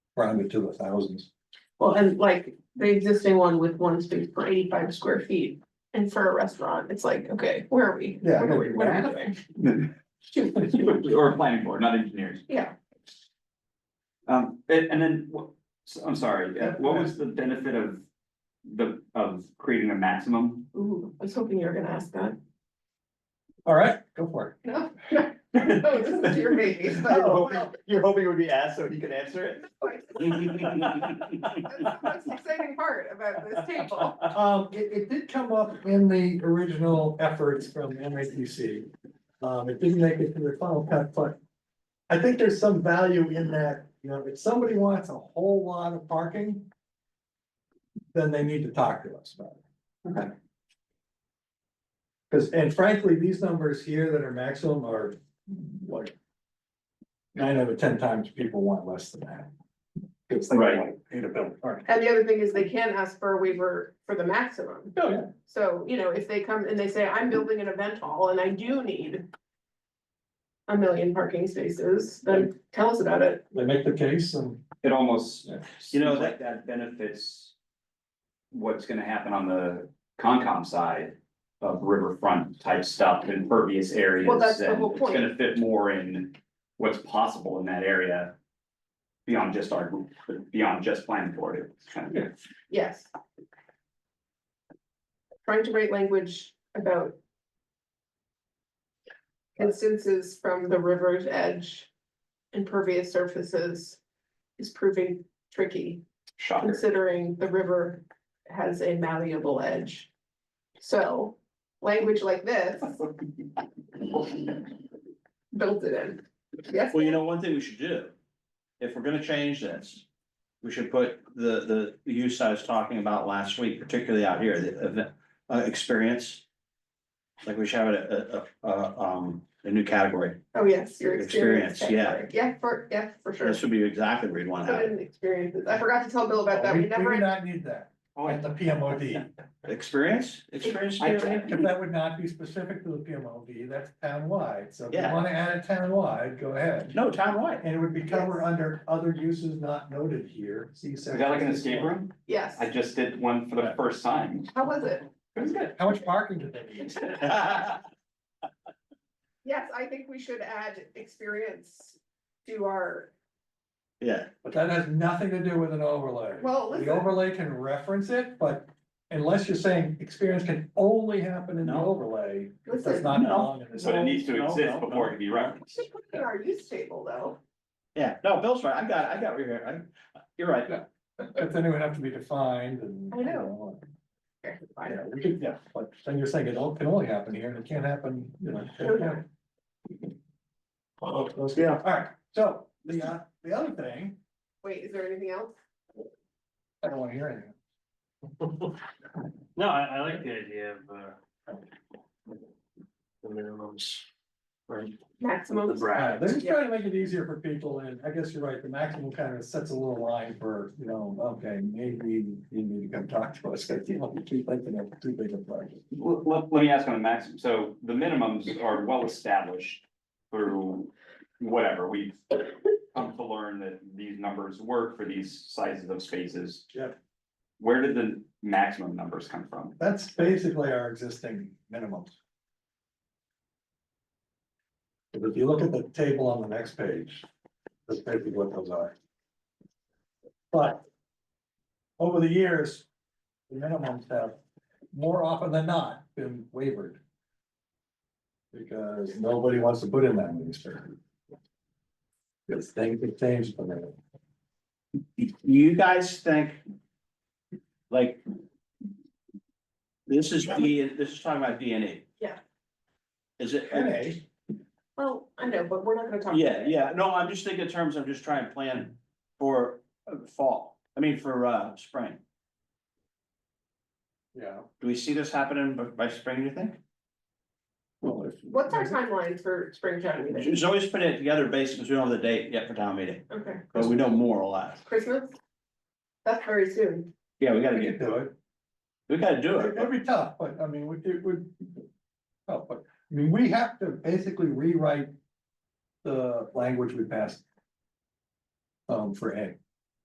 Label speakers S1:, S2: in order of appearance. S1: rounded to the thousands.
S2: Well, and like the existing one with one space per eighty-five square feet. And for a restaurant, it's like, okay, where are we?
S1: Yeah, I
S2: What are we,
S1: know.
S2: what are we doing?
S3: Or planning board, not engineers.
S2: Yeah,
S3: Um, and, and then, what, so- I'm sorry, uh, what was the benefit of the, of creating a maximum?
S2: ooh, I was hoping you were gonna ask that.
S1: All right, go for
S2: No, no, no, this is your baby, so. no.
S3: you're hoping it would be asked so he could answer it?
S2: That's the most exciting part about this table.
S1: it. Um, it, it did come up in the original efforts from MAPC. Um, it didn't make it to the final cut, but I think there's some value in that, you know, if somebody wants a whole lot of parking, then they need to talk to us about it.
S3: Okay.
S1: Cause, and frankly, these numbers here that are maximum are like nine out of ten times people want less than that. It's like,
S3: Right.
S1: like, need a bill, all right.
S2: And the other thing is they can ask for a waiver for the maximum.
S1: Oh, yeah.
S2: So, you know, if they come and they say, I'm building an event hall and I do need. A million parking spaces, then tell us about it.
S1: they make the case and.
S3: It almost,
S1: yeah.
S3: you know, that, that benefits what's gonna happen on the Concom side of riverfront type stuff, impervious areas.
S2: Well, that's the
S3: and
S2: whole
S3: It's gonna fit more in what's possible in that area beyond just our, group, but beyond just planning board, it's kind of.
S2: Yes. Trying to write language about. Instances from the river's edge. Impervious surfaces is proving tricky,
S3: Shocker.
S2: considering the river has a malleable edge. So, language like this built it in. Yes,
S4: Well, you know, one thing we should do, if we're gonna change this. We should put the, the use I was talking about last week, particularly out here, the event, uh, experience. Like we should have a, a, a, um, a new category.
S2: oh, yes, your
S4: Experience,
S2: experience. category. Yeah, for, yeah, for sure.
S4: This would be exactly where you'd wanna have
S2: Put
S4: it.
S2: in experiences. I forgot to tell Bill about that.
S1: We
S2: We
S1: we
S2: never.
S1: do not need that
S3: Oh,
S1: at the PMOD.
S4: Experience, experience.
S3: I-
S4: area?
S1: That would not be specific to the PMOD, that's townwide. So if you
S4: Yeah.
S1: want to add it townwide, go ahead.
S4: No, townwide.
S1: And it would be covered under other uses not noted here. See
S3: Is that like an escape room?
S2: Yes.
S3: I just did one for the first time.
S2: How was it?
S3: It was good.
S1: How much parking did they need?
S2: Yes, I think we should add experience to our,
S4: Yeah,
S1: But that has nothing to do with an overlay.
S2: well,
S1: The
S2: listen,
S1: overlay can reference it, but unless you're saying experience can only happen in the
S4: No.
S1: overlay, it does
S2: Listen.
S1: not
S4: No.
S1: belong in this.
S3: But it needs
S4: No,
S3: to
S4: no,
S3: exist
S4: no.
S3: before it can be referenced.
S2: should put it in our use table though.
S4: yeah. No, Bill's right. I got, it. I got what you're here. You're right.
S1: But then it would have to be defined and.
S2: I
S1: you
S2: know.
S1: Yeah, we could, yeah, but then you're saying it all can only happen here and it can't happen, you know. it can't.
S4: Yeah.
S1: All right, so the uh, the other thing,
S2: Wait, is there anything else?
S1: I don't wanna hear anything.
S5: No, I, I like the idea of, uh. The minimums. Right, the
S2: Maximum,
S1: Uh,
S5: brackets.
S1: They're just trying to make it easier for people and I guess you're right, the maximum kind of sets a little line for, you know, okay, maybe you need to come talk to us, because you know, we keep thinking of too big a project.
S3: Let, let, let me ask on the maximum, so the minimums are well established through whatever, we've come to learn that these numbers work for these sizes of spaces.
S1: Yep.
S3: Where did the maximum numbers come from?
S1: That's basically our existing minimums. But If you look at the table on the next page, that's basically what those are. But over the years, the minimums have more often than not been wavered. Because nobody wants to put in that minister. Because things have changed for them.
S4: Do you guys think? Like. This is D, this is talking about D N A.
S2: Yeah.
S4: Is it?
S1: NA?
S2: well, I know, but we're not gonna talk.
S4: Yeah, yeah, no, I'm just thinking in terms, I'm just trying to plan for uh, fall, I mean, for uh, spring.
S1: Yeah.
S4: Do we see this happening by, by spring, you think?
S1: Well, if-
S2: What's our timeline for spring town meeting?
S4: She's always putting it together based, because we don't have the date yet for town meeting,
S2: Okay,
S4: but we know more or less.
S2: Christmas? That's very soon.
S4: Yeah, we gotta
S1: We could
S4: get,
S1: do it.
S4: we gotta do it.
S1: It- It'd be tough, but I mean, we- it would. Oh, but, I mean, we have to basically rewrite the language we passed. Um, for A.